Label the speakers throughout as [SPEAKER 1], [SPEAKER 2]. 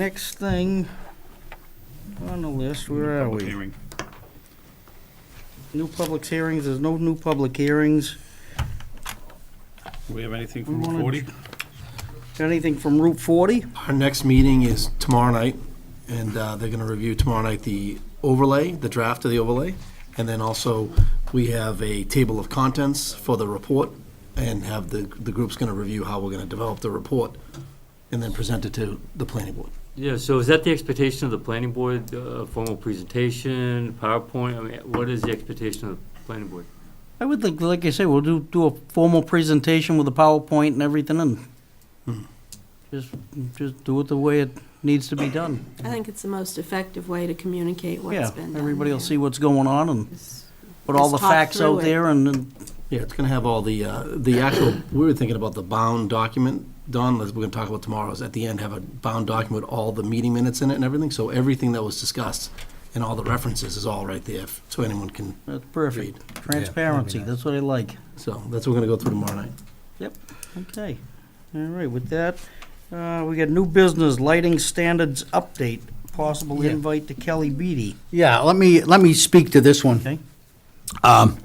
[SPEAKER 1] Next thing on the list, where are
[SPEAKER 2] Public
[SPEAKER 1] we?
[SPEAKER 2] hearing.
[SPEAKER 1] New public hearings, there's no new public hearings.
[SPEAKER 2] Do we have
[SPEAKER 1] We
[SPEAKER 2] anything from
[SPEAKER 1] wanna-
[SPEAKER 2] 40?
[SPEAKER 1] Got anything from Route 40?
[SPEAKER 3] Our next meeting is tomorrow night, and uh, they're going to review tomorrow night the overlay, the draft of the overlay, and then also, we have a table of contents for the report, and have the, the group's going to review how we're going to develop the report, and then present it to the planning board.
[SPEAKER 4] Yeah, so is that the expectation of the planning board, uh, formal presentation, PowerPoint? I mean, what is the expectation of the planning board?
[SPEAKER 1] I would think, like I say, we'll do, do a formal presentation with a PowerPoint and everything and just, just do it the way it needs to be done.
[SPEAKER 5] I think it's the most effective way to communicate what's
[SPEAKER 1] Yeah,
[SPEAKER 5] been done.
[SPEAKER 1] everybody will
[SPEAKER 5] there.
[SPEAKER 1] see what's going on and
[SPEAKER 5] It's-
[SPEAKER 1] put all
[SPEAKER 5] Just
[SPEAKER 1] the
[SPEAKER 5] talk
[SPEAKER 1] facts
[SPEAKER 5] through
[SPEAKER 1] out
[SPEAKER 5] it.
[SPEAKER 1] there and, and
[SPEAKER 3] Yeah, it's going to have all the, uh, the actual, we were thinking about the bound document, Don, as we're going to talk about tomorrow, is at the end, have a bound document with all the meeting minutes in it and everything, so everything that was discussed and all the references is all right there, so anyone can
[SPEAKER 1] that's perfect. Transparency, that's what I like.
[SPEAKER 3] So that's what we're gonna go through tomorrow night.
[SPEAKER 1] Okay, all right, with that, uh, we got new business, lighting standards update, possible
[SPEAKER 6] Yeah.
[SPEAKER 1] invite to Kelly Beatty.
[SPEAKER 6] Yeah, let me, let me speak to this one.
[SPEAKER 1] Okay.
[SPEAKER 6] Um,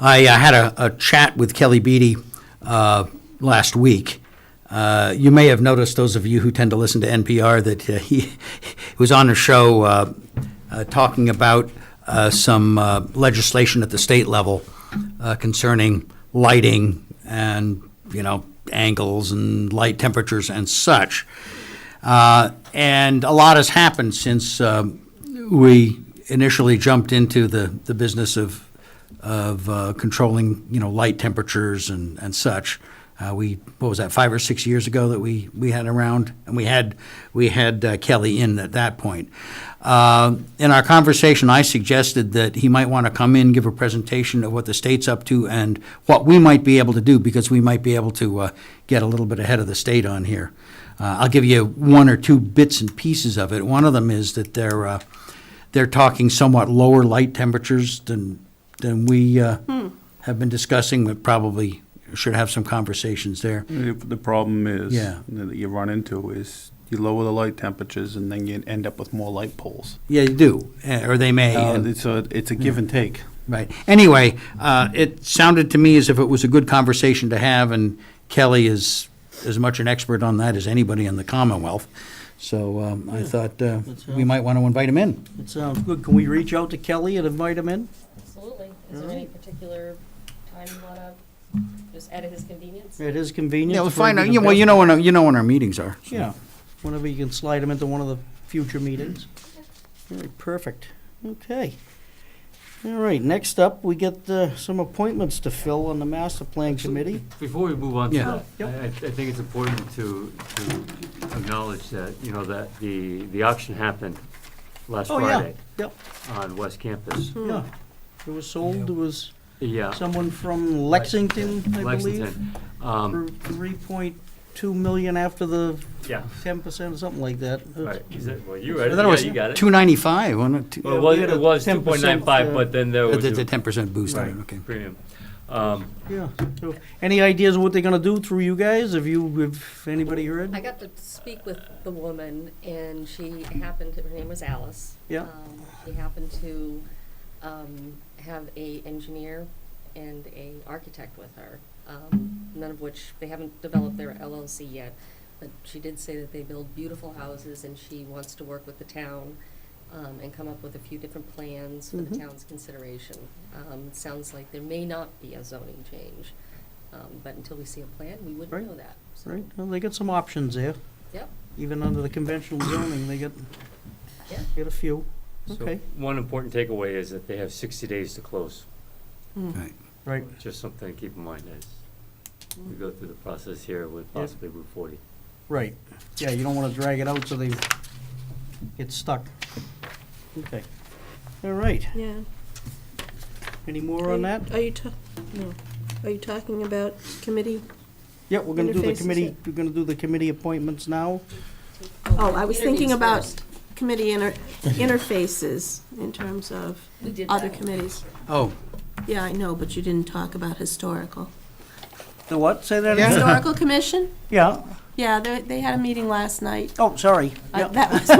[SPEAKER 6] I uh, had a, a chat with Kelly Beatty, uh, last week. Uh, you may have noticed, those of you who tend to listen to NPR, that uh, he, he was on a show, uh, uh, talking about, uh, some uh, legislation at the state level uh, concerning lighting and, you know, angles and light temperatures and such. Uh, And a lot has happened since um, we initially jumped into the, the business of, of uh, controlling, you know, light temperatures and, and such. Uh, We, what was that, five or six years ago that we, we had around? And we had, we had uh, Kelly in at that point. Uh, In our conversation, I suggested that he might want to come in, give a presentation of what the state's up to and what we might be able to do, because we might be able to uh, get a little bit ahead of the state on here. Uh, I'll give you one or two bits and pieces of it. One of them is that they're, uh, they're talking somewhat lower light temperatures than, than we uh, have been discussing, but probably should have some conversations there.
[SPEAKER 2] The the problem is,
[SPEAKER 6] Yeah.
[SPEAKER 2] that you run into is you lower the light temperatures and then you end up with more light poles.
[SPEAKER 6] Yeah, you do, eh, or they may.
[SPEAKER 2] Uh,
[SPEAKER 6] and-
[SPEAKER 2] it's a, it's a give and take.
[SPEAKER 6] Right. Anyway, uh, it sounded to me as if it was a good conversation to have, and Kelly is as much an expert on that as anybody in the Commonwealth. So um, I thought uh,
[SPEAKER 1] that's
[SPEAKER 6] we might want to invite him in.
[SPEAKER 1] It sounds good. Can we reach out to Kelly and invite him in?
[SPEAKER 7] Absolutely. Is there any particular time you want to just add at his convenience?
[SPEAKER 1] At his convenience?
[SPEAKER 6] Yeah, we'll
[SPEAKER 1] would
[SPEAKER 6] find
[SPEAKER 1] be
[SPEAKER 6] out.
[SPEAKER 1] the
[SPEAKER 6] Yeah, well, you
[SPEAKER 1] best.
[SPEAKER 6] know when our, you know when our meetings are. so.
[SPEAKER 1] Yeah, whenever you can slide him into one of the future meetings. All right, perfect. Okay. All right, next up, we get uh, some appointments to fill on the master plan committee.
[SPEAKER 4] Before we move on to
[SPEAKER 6] Yeah.
[SPEAKER 4] that, I,
[SPEAKER 1] Yep.
[SPEAKER 4] I I think it's important to, to acknowledge that, you know, that the, the auction happened last
[SPEAKER 1] Oh, yeah,
[SPEAKER 4] Friday
[SPEAKER 1] yep,
[SPEAKER 4] on West Campus.
[SPEAKER 1] yeah. It was sold, it was
[SPEAKER 4] Yeah,
[SPEAKER 1] someone from Lexington, I believe,
[SPEAKER 4] Lexington. Um,
[SPEAKER 1] for three point two million after the
[SPEAKER 4] yeah,
[SPEAKER 1] ten percent or something like that.
[SPEAKER 4] right. Is it, well, you read
[SPEAKER 6] I
[SPEAKER 4] it,
[SPEAKER 6] thought it
[SPEAKER 4] yeah,
[SPEAKER 6] was
[SPEAKER 4] you got it.
[SPEAKER 6] two ninety five. Uh,
[SPEAKER 4] Well, it
[SPEAKER 1] Yeah,
[SPEAKER 4] was,
[SPEAKER 1] we had
[SPEAKER 4] it was
[SPEAKER 1] a 10%,
[SPEAKER 4] two point nine five,
[SPEAKER 1] uh,
[SPEAKER 4] but then there was
[SPEAKER 6] the the
[SPEAKER 4] a
[SPEAKER 6] ten percent boost. on it,
[SPEAKER 1] Right.
[SPEAKER 6] Okay.
[SPEAKER 4] premium. Um,
[SPEAKER 1] Yeah, so, any ideas of what they're gonna do through you guys? Have you, have anybody
[SPEAKER 7] I
[SPEAKER 1] heard?
[SPEAKER 7] got to speak with the woman, and she happened, to- her name was Alice.
[SPEAKER 1] Yeah.
[SPEAKER 7] Um, She happened to um, have a engineer and a architect with her, um, none of which, they haven't developed their LLC yet. But she did say that they build beautiful houses, and she wants to work with the town um, and come up with a few different plans for the
[SPEAKER 1] Mhm.
[SPEAKER 7] town's consideration. Um, it Sounds like there may not be a zoning change, um, but until we see a plan, we
[SPEAKER 1] Right.
[SPEAKER 7] wouldn't know that. So,
[SPEAKER 1] Right, well, they got some options there.
[SPEAKER 7] Yep.
[SPEAKER 1] Even under the conventional zoning, they got,
[SPEAKER 7] Yeah.
[SPEAKER 1] got a few.
[SPEAKER 4] so
[SPEAKER 1] Okay.
[SPEAKER 4] one important takeaway is that they have sixty days to close.
[SPEAKER 6] Right.
[SPEAKER 1] Right.
[SPEAKER 4] Just something to keep in mind as we go through the process here with
[SPEAKER 1] Yeah.
[SPEAKER 4] possibly Route 40.
[SPEAKER 1] Right, yeah, you don't wanna drag it out so they get stuck. Okay, all right,
[SPEAKER 5] Yeah.
[SPEAKER 1] any more on that?
[SPEAKER 5] Are you, ta- no. Are you talking about committee?
[SPEAKER 1] Yeah, we're gonna do the
[SPEAKER 5] Interfaces, yeah.
[SPEAKER 1] committee, we're gonna do the committee appointments now.
[SPEAKER 5] Oh, I was thinking
[SPEAKER 7] Interviews
[SPEAKER 5] about
[SPEAKER 7] first.
[SPEAKER 5] committee inter- interfaces in terms of
[SPEAKER 7] We did
[SPEAKER 5] other
[SPEAKER 7] that.
[SPEAKER 5] committees.
[SPEAKER 6] Oh,
[SPEAKER 5] Yeah, I know, but you didn't talk about historical.
[SPEAKER 1] The what, say that again?
[SPEAKER 5] Historical commission?
[SPEAKER 1] Yeah, Yeah, they, they had a meeting last night.
[SPEAKER 5] Oh, sorry.
[SPEAKER 1] Uh,
[SPEAKER 5] Yep.
[SPEAKER 1] That was